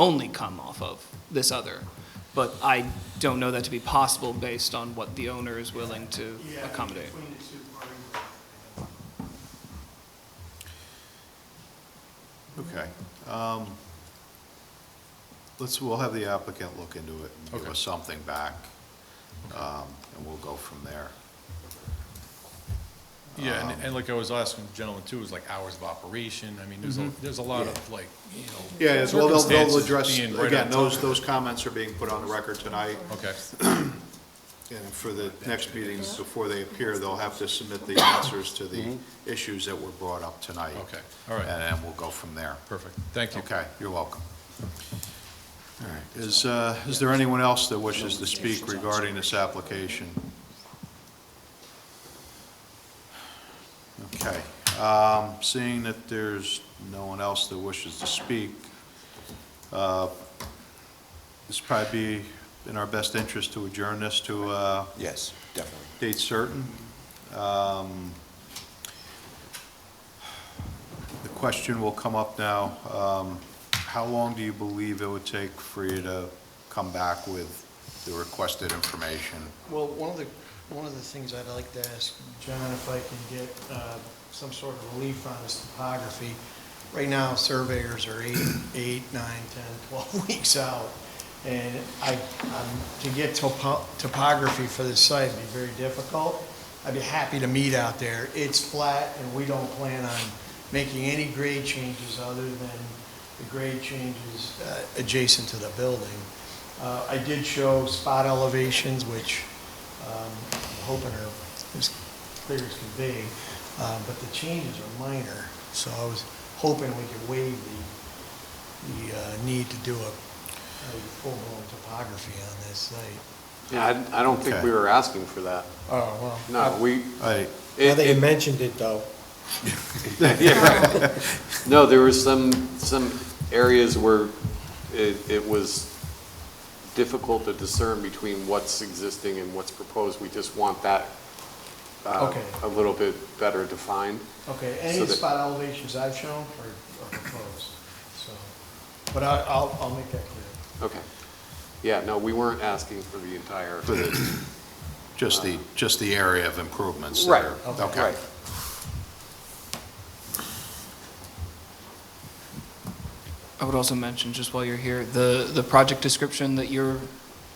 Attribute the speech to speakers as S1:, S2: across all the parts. S1: only come off of this other. But I don't know that to be possible based on what the owner is willing to
S2: Yeah,
S1: accommodate.
S2: Between the two parties.
S3: Okay. um, Let's, we'll have the applicant look into it and give
S4: Okay.
S3: us something back, um, and we'll go from there.
S4: Yeah, and, and like I was asking the gentleman too, is like hours of operation, I mean, there's a, there's a lot of like, you know.
S3: Yeah, as well, they'll, they'll
S4: circumstances
S3: address,
S4: being right
S3: again,
S4: on
S3: those,
S4: top.
S3: those comments are being put on the record tonight,
S4: Okay,
S3: and for the next meetings, before they appear, they'll have to submit the answers to the issues that were brought up tonight.
S4: Mm-hmm. Okay, all right.
S3: And then we'll go from there.
S4: perfect, thank you.
S3: Okay, you're welcome. All right, is, uh, is there anyone else that wishes to speak regarding this application? Okay, um, seeing that there's no one else that wishes to speak, uh, this probably be in our best interest to adjourn this to a
S5: Yes, definitely.
S3: date certain. Um, The question will come up now, um, how long do you believe it would take for you to come back with the requested information?
S6: Well, one of the, one of the things I'd like to ask John, if I can get uh, some sort of relief on this topography. Right now, surveyors are eight, eight, nine, 10, 12 weeks out. And I, I'm- to get topo- topography for this site would be very difficult. I'd be happy to meet out there. It's flat, and we don't plan on making any grade changes other than the grade changes uh, adjacent to the building. Uh, I did show spot elevations, which um, I'm hoping are as clear as can be, uh, but the changes are minor, so I was hoping we could waive the, the uh, need to do a a full-blown topography on this site.
S7: Yeah, I I don't think
S3: Okay.
S7: we were asking for that.
S6: Oh,
S7: No,
S3: All
S7: we,
S3: right,
S6: Now
S7: it-
S6: that you mentioned it, though.
S7: no, there were some, some areas where it, it was difficult to discern between what's existing and what's proposed. We just want that uh,
S6: Okay.
S7: a little bit better defined.
S6: Okay, any
S7: So
S6: of the
S7: that-
S6: spot elevations I've shown are are proposed, so, but I- I'll, I'll make that clear.
S7: Okay. Yeah, no, we weren't asking for the entire.
S3: for the, just the, just the area of improvements that
S7: Right,
S3: are-
S6: okay.
S3: Okay.
S7: Right.
S1: I would also mention, just while you're here, the, the project description that you're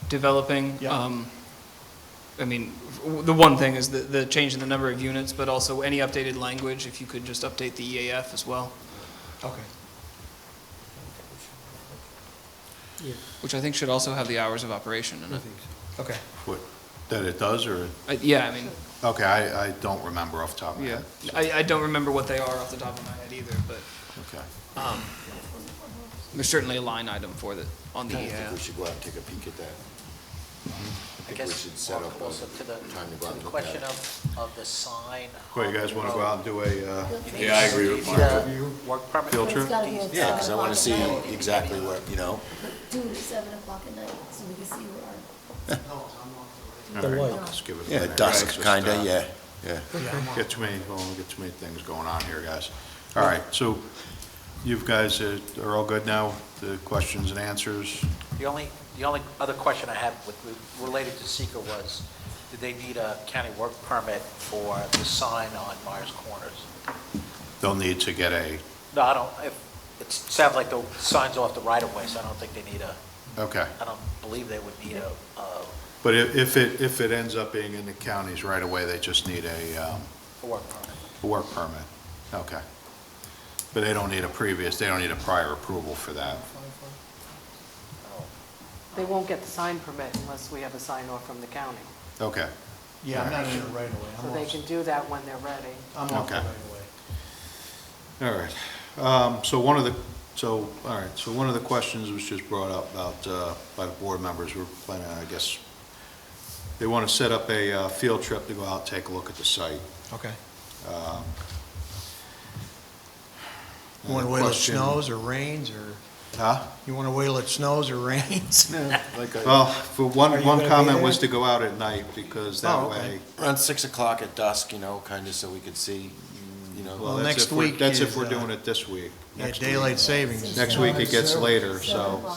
S1: developing.
S6: Yeah.
S1: um, I mean, w- the one thing is the, the change in the number of units, but also any updated language, if you could just update the EAF as well,
S6: Okay.
S1: which I think should also have the hours of operation in it.
S6: Okay.
S3: What- That it does, or,
S1: I- Yeah, I mean,
S3: okay, I, I don't remember off the top of my
S1: yeah.
S3: head.
S1: I, I don't remember what they are off the top of my head either, but
S3: Okay.
S1: there's certainly a line item for the, on the uh,
S5: I think we
S1: EAF.
S5: should go out and take a peek at that. I
S8: I
S5: think we
S8: guess
S5: should set
S8: more
S5: up a
S8: closer to the,
S5: time to go out
S8: to
S5: and look
S8: the
S5: at
S8: question
S5: it.
S8: of, of the sign. um,
S3: Well, you guys want to go out and do a, uh,
S4: Yeah, I agree with
S8: Mark. Work permit.
S3: Field trip?
S9: It's gotta be at
S5: Yeah, because I
S9: seven
S5: want to
S9: o'clock
S5: see
S9: at night.
S5: exactly where, you know,
S9: Do it at seven o'clock at night, so we can see where our
S3: all right, let's give it a
S5: yeah,
S3: minute. Just,
S5: dusk,
S3: uh,
S5: kind of, yeah, yeah.
S3: Get too many, well, we get too many things going on here, guys. All right, so you guys uh, are all good now, the questions and answers?
S8: The only, the only other question I had with, related to seeker was, did they need a county work permit for the sign on Myers Corners?
S3: They'll need to get a,
S8: No, I don't, it, it sounds like the sign's off the right of way, so I don't think they need a,
S3: okay.
S8: I don't believe they would need a, a
S3: But if if it, if it ends up being in the counties right away, they just need a um,
S8: work permit.
S3: a work permit. Okay. But they don't need a previous, they don't need a prior approval for that.
S10: They won't get the sign permit unless we have a sign off from the county.
S3: Okay,
S6: Yeah, I'm not in it right away. I'm
S10: So they
S6: off-
S10: can do that when they're ready.
S6: I'm off the
S3: Okay.
S6: right away.
S3: all right. Um, So one of the, so, all right, so one of the questions was just brought up about, uh, by the board members, we're planning, I guess, they want to set up a uh, field trip to go out, take a look at the site.
S6: Okay.
S3: Um, And
S6: You want
S3: the
S6: to wait till it
S3: question-
S6: snows or rains, or,
S3: Huh?
S6: you want to wait till it snows or rains?
S5: Like a-
S3: Well, for
S6: Are
S3: one,
S6: you
S3: one
S6: gonna be
S3: comment was to
S6: there?
S3: go out at night, because that
S6: Oh, okay.
S3: way,
S5: Around 6 o'clock at dusk, you know, kind of so we could see, you
S3: well,
S5: know.
S6: Well,
S3: that's
S6: next
S3: if we're,
S6: week
S3: that's if
S6: is,
S3: we're
S6: uh,
S3: doing it this week.
S6: Yeah,
S3: Next week.
S6: daylight savings.
S3: Next week it gets later,
S9: Seven
S3: so.
S9: o'clock.